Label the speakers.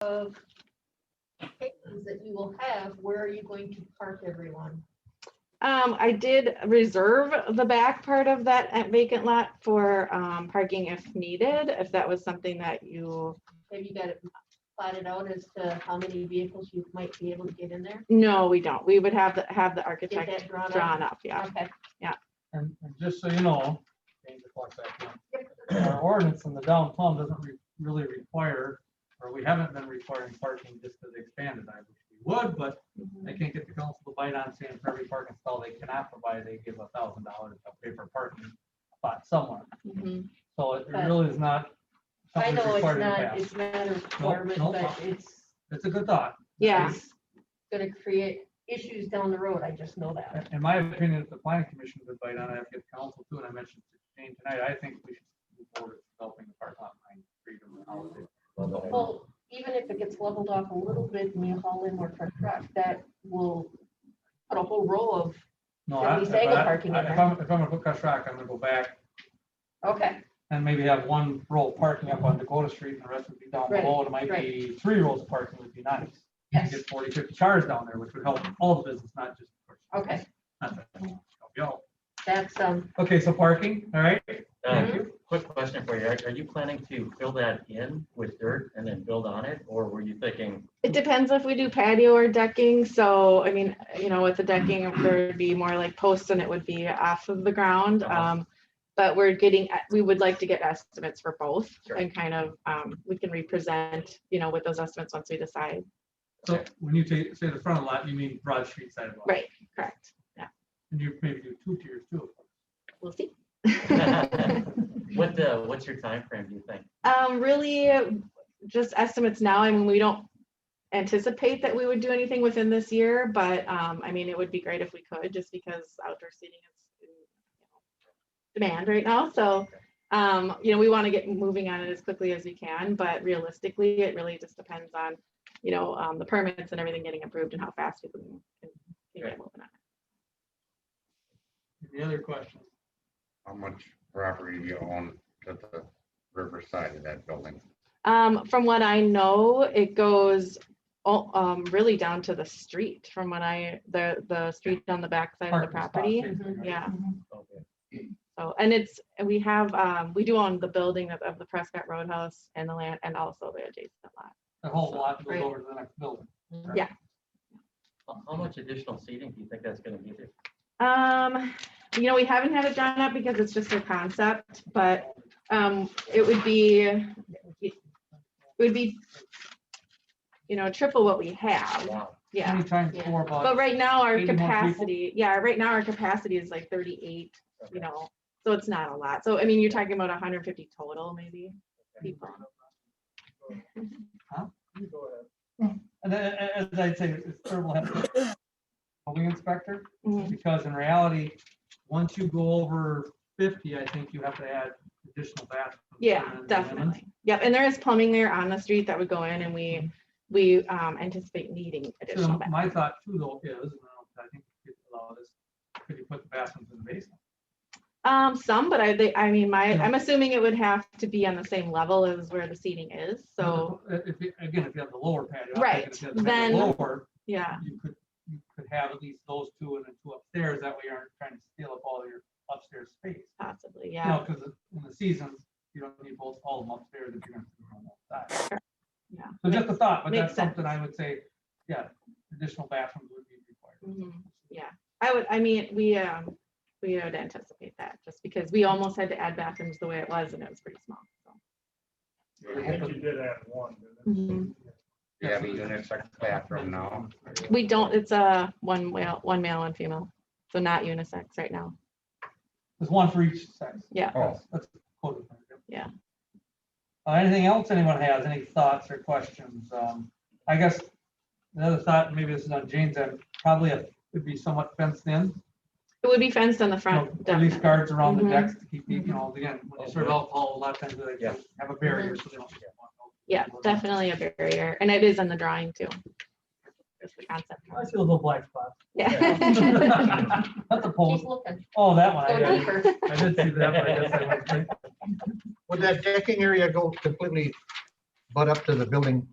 Speaker 1: of cases that you will have, where are you going to park everyone?
Speaker 2: Um, I did reserve the back part of that at vacant lot for, um, parking if needed, if that was something that you,
Speaker 1: Have you got it plotted out as to how many vehicles you might be able to get in there?
Speaker 2: no, we don't. We would have the, have the architect
Speaker 1: that drawn up?
Speaker 2: drawn up, yeah.
Speaker 1: Okay,
Speaker 3: And, and just so you know, change the clock back now, Our ordinance in the downtown doesn't re- really require, or we haven't been requiring parking just because they expanded. I wish we would, but
Speaker 1: Mm-hmm,
Speaker 3: they can't get the council to bite on saying for every parking stall they cannot provide, they give a thousand dollars to pay for parking spot somewhere.
Speaker 1: mm-hmm.
Speaker 2: Mhm.
Speaker 3: So it it
Speaker 1: But-
Speaker 3: really is not.
Speaker 1: I
Speaker 3: something
Speaker 1: know it's
Speaker 3: required in the
Speaker 1: not,
Speaker 3: past.
Speaker 1: it's not a requirement,
Speaker 3: no
Speaker 1: but
Speaker 3: problem.
Speaker 1: it's
Speaker 3: It's a good thought.
Speaker 2: Yeah,
Speaker 1: it's gonna create issues down the road, I just know that.
Speaker 3: In my opinion, if the planning commission would bite on it, if the council too, and I mentioned to Jane tonight, I think we should move forward with developing the parking lot behind Freedom and Holiday.
Speaker 1: Well, even if it gets leveled off a little bit and you haul in more truck truck, that will put a whole row of,
Speaker 3: No,
Speaker 1: At
Speaker 3: I-
Speaker 1: least
Speaker 3: but
Speaker 1: I got
Speaker 3: I-
Speaker 1: parking in
Speaker 3: I- If
Speaker 1: there.
Speaker 3: I'm, if I'm gonna put Cush Rock, I'm gonna go back
Speaker 1: okay,
Speaker 3: and maybe have one row of parking up on Dakota Street and the rest would be down
Speaker 1: Right,
Speaker 3: below. and It might
Speaker 1: right.
Speaker 3: be three rows of parking would be nice. You
Speaker 1: yes,
Speaker 3: Get 40, 50 cars down there, which would help all the business, not just. Cush Rock.
Speaker 1: okay,
Speaker 3: Not that help you out.
Speaker 1: that's, um,
Speaker 3: Okay, so parking, all right?
Speaker 4: Uh,
Speaker 3: Thank you.
Speaker 4: Quick question for you. Are are you planning to fill that in with dirt and then build on it? Or were you thinking,
Speaker 2: it depends if we do patio or decking, so, I mean, you know, with the decking, there would be more like posts and it would be off of the ground.
Speaker 4: Uh-huh.
Speaker 2: Um, but we're getting, uh, we would like to get estimates for both
Speaker 4: Sure.
Speaker 2: and kind of, um, we can represent, you know, with those estimates once we decide.
Speaker 3: So when you ta- say the front lot, you mean Broad Street sidewalk?
Speaker 2: Right, correct.
Speaker 3: And you maybe do two tiers too.
Speaker 2: We'll see.
Speaker 4: what, uh, what's your time frame? do you think?
Speaker 2: Um, really, just estimates now. I mean, we don't anticipate that we would do anything within this year, but, um, I mean, it would be great if we could, just because outdoor seating is in demand right now, so, um, you know, we want to get moving on it as quickly as we can, but realistically, it really just depends on, you know, um, the permits and everything getting approved and how fast we can can get moving on. it.
Speaker 3: Any other questions?
Speaker 5: How much property do you own to the riverside of that building?
Speaker 2: Um, from what I know, it goes all, um, really down to the street, from what I, the, the street on the backside of the
Speaker 3: Parking spot,
Speaker 2: property.
Speaker 3: basically, right?
Speaker 2: Yeah,
Speaker 4: Okay.
Speaker 2: so, and it's, and we have, um, we do own the building of, of the Prescott Roadhouse and the land and also the adjacent lot.
Speaker 3: The whole lot
Speaker 2: Right.
Speaker 3: goes over to the next building.
Speaker 1: Mhm.
Speaker 2: Yeah.
Speaker 4: How- How much additional seating do you think that's gonna be there?
Speaker 2: Um, you know, we haven't had it drawn up because it's just a concept, but, um, it would be, it would be, you know, triple what we have,
Speaker 4: Wow.
Speaker 2: yeah.
Speaker 3: Many times
Speaker 1: Yeah.
Speaker 3: four blocks.
Speaker 2: But right now, our
Speaker 3: 80 more people?
Speaker 2: capacity, yeah, right now, our capacity is like thirty-eight, you know, so it's not a lot. So, I mean, you're talking about hundred and fifty total, maybe, people.
Speaker 3: And then, a- a- as I'd say, it's terrible having a building inspector,
Speaker 2: Mhm.
Speaker 3: because in reality, once you go over fifty, I think you have to add additional bathrooms.
Speaker 2: Yeah,
Speaker 3: and then lemons.
Speaker 2: definitely. Yep, and there is plumbing there on the street that would go in and
Speaker 3: Mm-hmm.
Speaker 2: we, we um, anticipate needing additional.
Speaker 3: So
Speaker 2: ba-
Speaker 3: my thought too though is, and I think we could allow this, could you put the bathrooms in the basement?
Speaker 2: Um, some, but I, they, I mean, my,
Speaker 3: Yeah.
Speaker 2: I'm assuming it would have to be on the same level as where the seating is, so,
Speaker 3: Uh, If, you- again, if you have the lower patio. I'm thinking
Speaker 2: Right,
Speaker 3: if you have the
Speaker 2: then-
Speaker 3: Lower,
Speaker 2: yeah,
Speaker 3: you could, you could have at least those two and then two upstairs, that way you aren't trying to steal up all your upstairs space.
Speaker 2: possibly,
Speaker 3: You know,
Speaker 2: yeah.
Speaker 3: because in the seasons, you don't need both all of them upstairs if you're gonna put them on that side.
Speaker 2: Yeah.
Speaker 3: So just a thought, but
Speaker 2: makes
Speaker 3: that's something
Speaker 2: sense.
Speaker 3: I would say, yeah, additional bathrooms would be required.
Speaker 2: Mhm. Yeah, I would, I mean, we, um, we would anticipate that, just because we almost had to add bathrooms the way it was, and it was pretty small, so.
Speaker 6: I think you did add one, didn't
Speaker 2: Mhm.
Speaker 5: Do you have a unisex bathroom now?
Speaker 2: We don't, it's a one male, one male, one female, so not unisex right now.
Speaker 3: There's one for each sex.
Speaker 2: Yeah.
Speaker 4: Oh.
Speaker 5: Oh,
Speaker 3: That's- that's code.
Speaker 2: Yeah.
Speaker 3: Uh, Anything else anyone has, any thoughts or questions? Um, I guess another thought, maybe this is on Jane's, end, probably it would be somewhat fenced in.
Speaker 2: It would be fenced on the
Speaker 3: you know,
Speaker 2: front.
Speaker 3: Police
Speaker 2: definitely.
Speaker 3: guards around the
Speaker 2: Mhm.
Speaker 3: decks to keep, the- you know, again, when you
Speaker 4: Oh,
Speaker 3: serve
Speaker 4: good.
Speaker 3: alcohol, a lot of times they
Speaker 4: Yeah.
Speaker 3: have a barrier so they don't.
Speaker 2: Yeah, definitely a barrier, and it is on the drawing too. Just the concept.
Speaker 3: I see a little black spot.
Speaker 2: Yeah.
Speaker 3: That's a
Speaker 1: keep
Speaker 3: pole.
Speaker 1: looking,
Speaker 3: Oh, that one. I
Speaker 1: go
Speaker 3: got it.
Speaker 1: deeper.
Speaker 3: I did see that. but I guess I went straight.
Speaker 7: Would that decking area go completely butt up to the building